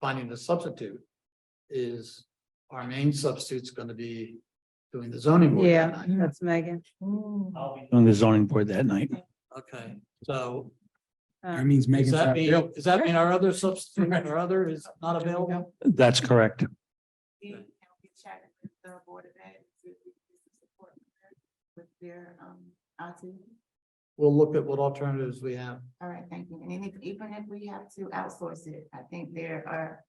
finding the substitute. Is our main substitute's gonna be doing the zoning board that Yeah, night? that's Megan. Oh. I'll be on the zoning board that night. Okay, so Uh, means does Megan's that not mean, available. does that mean our other substitute, our other is not available? That's correct. And we chatted with the Board of Ed, and see if we can get some support from her with their, um, autism. We'll look at what alternatives we have. All right, thank you. And then if- even if we have to outsource it, I think there are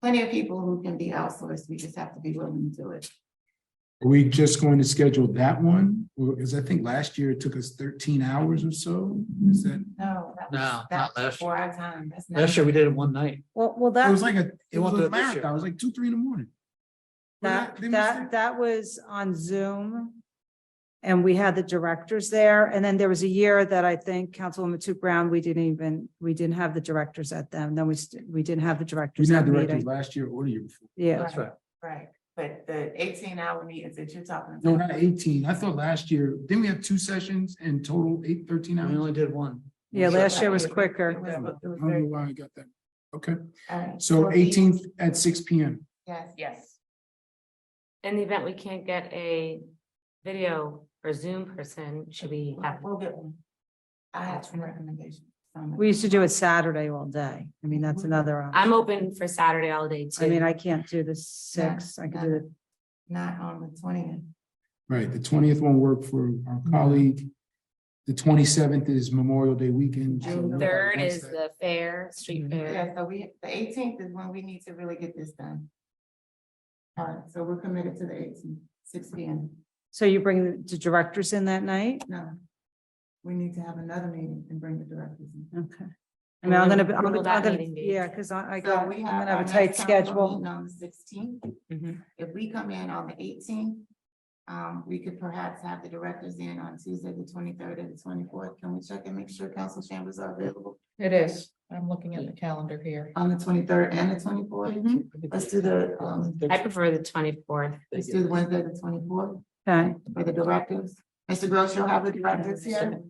plenty of people who can be outsourced. We just have to be willing to do it. Are we just going to schedule that one? Because I think last year it took us thirteen hours or so. Is that, No. that was- No, not that was last year. Before our time. That's not- Last year, we did it one night. Well, well, it that, was like a, it You want was to do a this year? marathon. It was like two, three in the morning. that, Wasn't that, that was on Zoom. And we had the directors there. And then there was a year that I think Councilwoman Toots Brown, we didn't even, we didn't have the directors at them. Then we, st- we didn't have the We directors didn't have at directors meeting. last year or the year before. Yeah, That's right. Right, but the eighteen hour meetings that you're talking about. No, not eighteen. I thought last year, didn't we have two sessions in total, eight, thirteen We hours? only did one. yeah, last year was It quicker. was- it was I don't know very- why I got that. Okay, all right. so eighteenth at six P M. Yes. Yes. In the event we can't get a video or Zoom person, should we have? We'll get one. I have some recommendations. from- We used to do it Saturday all day. I mean, that's another. option. I'm open for Saturday all day too. I mean, I can't do the six. I could do the, Not on the twentieth. Right, the twentieth won't work for our colleague. The twenty-seventh is Memorial Day weekend. so June nobody third wants is that. the fair, Mhm. street fair. Yeah, so we, the eighteenth is when we need to really get this done. All right, so we're committed to the 18th, 6 P M. so you bring the directors in that night? No. We need to have another meeting and bring the directors in. Okay. I And mean, I'm when gonna, would- be- I'm when gonna, will that I'm gonna- meeting be? yeah, because I, I So got, I'm we gonna our have a tight next council schedule. meeting On the sixteenth, Mhm. if we come in on the eighteenth, um, we could perhaps have the directors in on Tuesday, the twenty-third and the twenty-fourth. Can we check and make sure council chambers are available It is. I'm looking at the calendar here. on the twenty-third and the twenty-fourth? Let's do the, um, I prefer the twenty-fourth. let's do Wednesday, the twenty-fourth. Okay, For the directors, Mr. Gross, you'll have the directors here,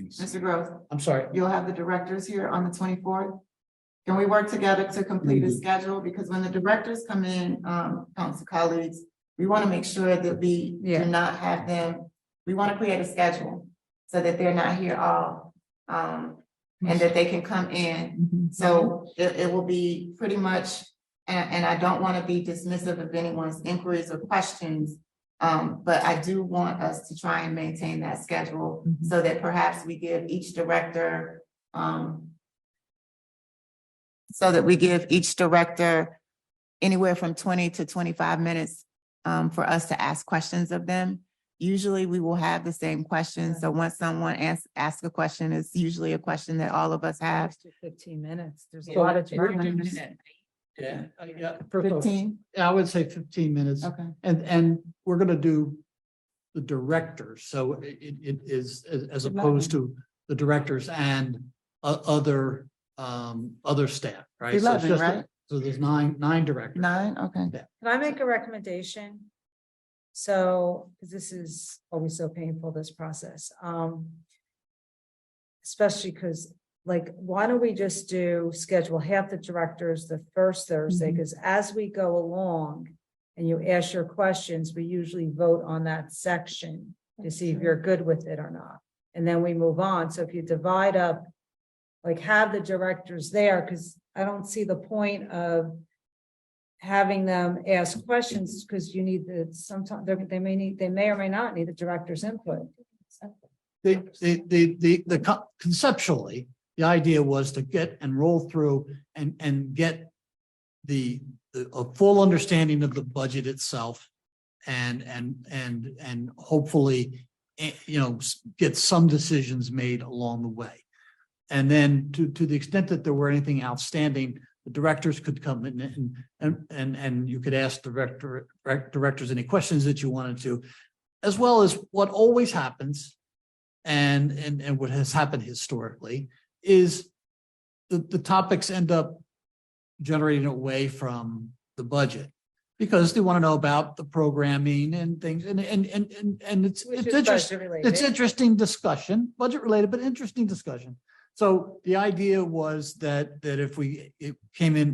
Mr. Gross, I'm sorry. you'll have the directors here on the twenty-fourth. Can we work together to complete a schedule, because when the directors come in, um, council colleagues, we wanna make sure that we Yeah. do not have them. We wanna create a schedule, so that they're not here all, um, and that they can come in Mm-hmm. so it, it will be pretty much, and, and I don't want to be dismissive of anyone's inquiries or questions. Um, but I do want us to try and maintain that schedule so that perhaps we give each director, um, so that we give each director anywhere from twenty to twenty-five minutes, um, for us to ask questions of them. Usually we will have the same questions. So once someone asks, asks a question, it's usually a question that all of us have. Fifteen minutes. There's a Yeah. lot of We're doing departments. it. Yeah, I- yeah, first off, Fifteen, I would say fifteen minutes. okay. And, and we're gonna do the directors, so it, it- it is, as- as opposed to the directors and o- other, um, other staff, right? So it's Eleven, just- right? So there's nine, nine directors. Nine, okay. Can I make a recommendation? So, 'cause this is always so painful, this process, um. Especially because, like, why don't we just do, schedule half the directors the first Thursday, because as we go along. And you ask your questions, we usually vote on that section to see if you're good with it or not. And then we move on, so if you divide up. Like, have the directors there, because I don't see the point of having them ask questions because you need the, sometimes, they may need, they may or may not need the director's input. The, the, the, the, the co- conceptually, the idea was to get and roll through and, and get the, the- a full understanding of the budget itself and, and, and, and hopefully, eh, you know, s- get some decisions made along the way. And then to, to the extent that there were anything outstanding, the directors could come in and, and, and, and you could ask director, direct- directors any questions that you wanted to, as well as what always happens and, and, and what has happened historically is the, the topics end up generating away from the budget because they want to know about the programming and things and, and, and, and, and it's, which it's is interesting. budget It's related. interesting discussion, budget related, but interesting discussion. So the idea was that, that if we, it came in